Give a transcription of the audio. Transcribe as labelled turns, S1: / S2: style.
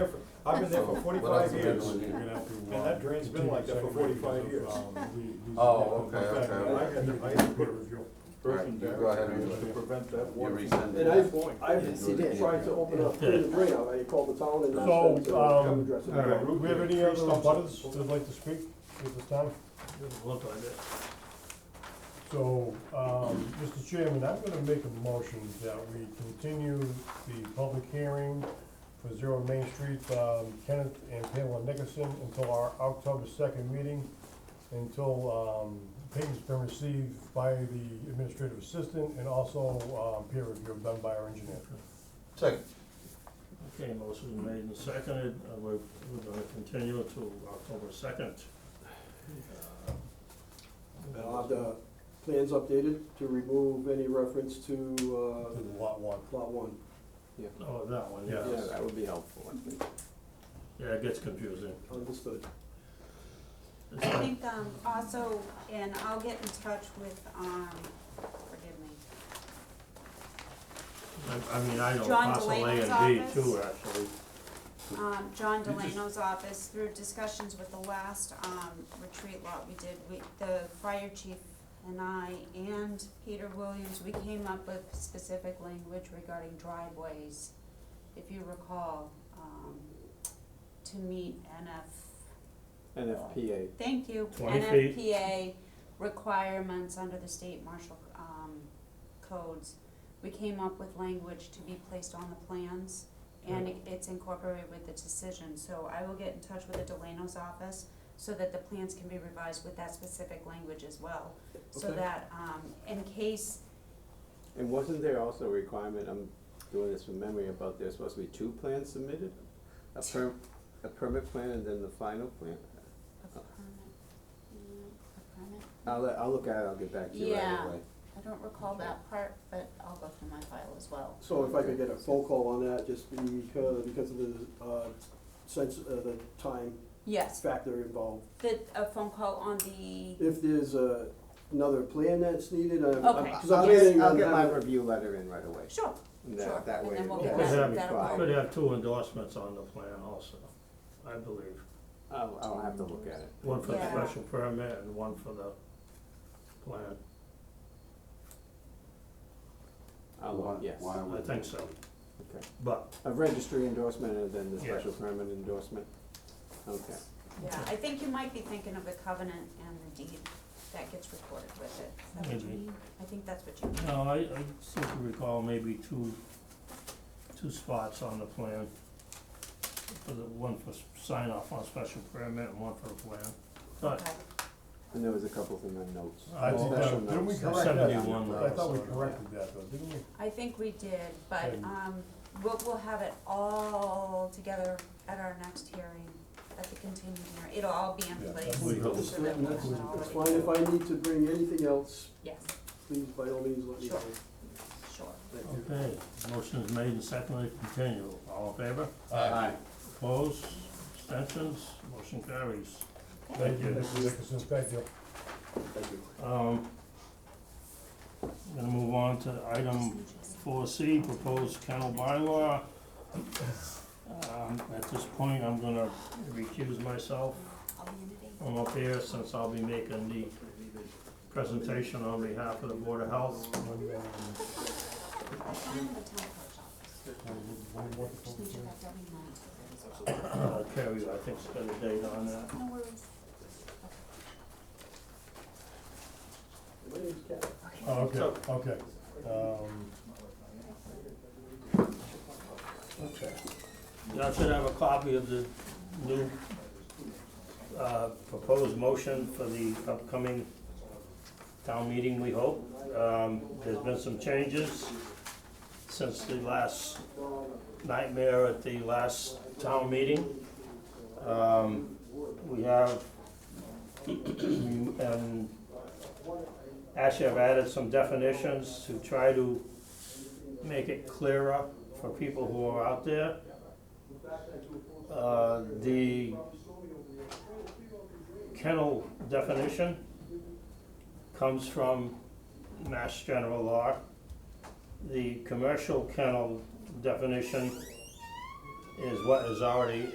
S1: I've been there for
S2: What else
S1: forty-five
S2: are we
S1: years,
S2: doing
S1: and
S2: here?
S1: that drain's been like that for forty-five years.
S2: Oh, okay,
S1: In fact,
S2: okay.
S1: I had to, I had to put a review.
S2: All right, you go ahead and do it.
S1: To prevent that
S2: You
S1: water.
S2: resend
S3: And
S2: it.
S3: I've, I've
S2: Yes, you did.
S3: tried to open up, clean the drain out, I called the town and
S4: So,
S3: asked them to come
S4: um,
S3: address it.
S4: do we have any other butters that would like to speak at this time?
S5: Look like it.
S4: So, um, Mr. Chairman, I'm gonna make a motion that we continue the public hearing for Zero Main Street, um, Kenneth and Pamela Nickerson until our October second meeting, until, um, papers been received by the administrative assistant and also, um, peer review done by our engineer.
S2: Second.
S5: Okay, motion is made and seconded, Uh, we're, we're gonna continue it to October second.
S3: I'll have the plans updated to remove any reference to,
S4: To the lot one.
S3: uh, lot one.
S5: Oh, that one,
S4: Yeah.
S5: yes,
S3: that would be helpful, I think.
S5: yeah, it gets confusing.
S3: Understood.
S5: It's
S6: I
S5: like-
S6: think, um, also, and I'll get in touch with, um, forgive me,
S5: I, I mean, I know
S6: John
S5: parcel A
S6: Delaney's
S5: and B
S6: office?
S5: too, actually,
S6: um, John
S5: You just-
S6: Delano's office, through discussions with the last, um, retreat lot we did, we, the fire chief and I and Peter Williams, we came up with specific language regarding driveways, if you recall, um, to meet NF
S3: NFPA.
S6: Thank you.
S5: 20 feet.
S6: NFPA requirements under the state marshal, um, codes. We came up with language to be placed on the plans and it- it's incorporated with the decision. So I will get in touch with the Delano's office so that the plans can be revised with that specific language as well. So
S3: Okay.
S6: that, um, in case,
S7: And wasn't there also a requirement, I'm doing this from memory, about there's supposed to be two plans submitted? A perm, a permit plan and then the final plan?
S6: a permit, mm, a permit?
S7: I'll, let- I'll look at it, I'll get back to you right
S6: Yeah.
S7: away.
S6: I don't recall that part, but I'll go through my file as well.
S3: So if I could get a phone call on that, just because, because of the, uh, sense, uh, the time
S6: Yes,
S3: factor involved.
S6: the, a phone call on the
S3: If there's, uh, another plan that's needed, I'm, I'm,
S6: Okay.
S3: cause
S7: Um, I'll
S3: I'm
S7: get,
S3: getting,
S7: I'll
S3: I'm
S7: get my
S3: having-
S7: review letter in right away.
S6: Sure,
S7: And
S6: Sure,
S7: That, that
S6: and
S7: way.
S6: then we'll
S7: it
S5: get
S7: will
S5: that-
S7: be
S6: that'll
S7: filed.
S6: work.
S5: could have two endorsements on the plan also, I believe.
S7: I'll, I'll have to look at it.
S5: One for the
S6: Yeah.
S5: special permit and one for the plan,
S7: I'll,
S2: Why-
S7: look, yes.
S2: why
S5: I
S2: would-
S5: think so.
S7: Okay.
S5: But,
S7: A registry endorsement and then the
S5: Yeah.
S7: special permit endorsement? Okay.
S6: Yeah, I think you might be thinking of the covenant and the deed that gets recorded with it. Is that what you
S5: Maybe.
S6: mean? I think that's what you mean.
S5: no, I, I seem to recall maybe two, two spots on the plan. For the, one for s- sign off on special permit and one for the plan. But
S6: Okay.
S7: And there was a couple of them on notes.
S4: I think that-
S7: Special
S4: didn't we
S7: notes.
S4: correct that?
S5: Seventy-one
S4: I thought we
S5: lots.
S4: corrected that though, didn't we?
S6: I think we did, but,
S4: Okay.
S6: um, we'll, we'll have it all together at our next hearing, at the continuing hearing. It'll all be
S4: Yeah,
S6: in
S4: that's
S6: place.
S4: what we
S6: so
S4: hope.
S6: that we'll know.
S3: It's fine, if I need to bring anything else,
S6: Yes,
S3: please, by all means, let me know.
S6: Sure. sure.
S3: Thank you.
S5: Okay, motion is made and seconded, continue. All in favor?
S7: Aye.
S5: Opposed? Abstentions? Motion carries.
S4: Thank you,
S5: Thank you.
S4: Mr. Nickerson, thank you.
S3: Thank you.
S5: Um, I'm gonna move on to item four C, proposed kennel bylaw. Um, at this point, I'm gonna recuse myself
S6: I'll be in today.
S5: from up here since I'll be making the presentation on behalf of the Board of Health.
S6: I found the town clerk's office. Just need you back down in nine.
S5: Uh, Carrie, I think's got a date on that.
S6: No worries.
S3: My name's Ken.
S4: Oh, okay, okay. Um,
S5: Okay. Y'all should have a copy of the new uh, proposed motion for the upcoming town meeting, we hope. Um, There's been some changes since the last nightmare at the last town meeting. Um, We have, and actually I've added some definitions to try to make it clearer for people who are out there. Uh, The kennel definition comes from Mass General Law. The commercial kennel definition is what is already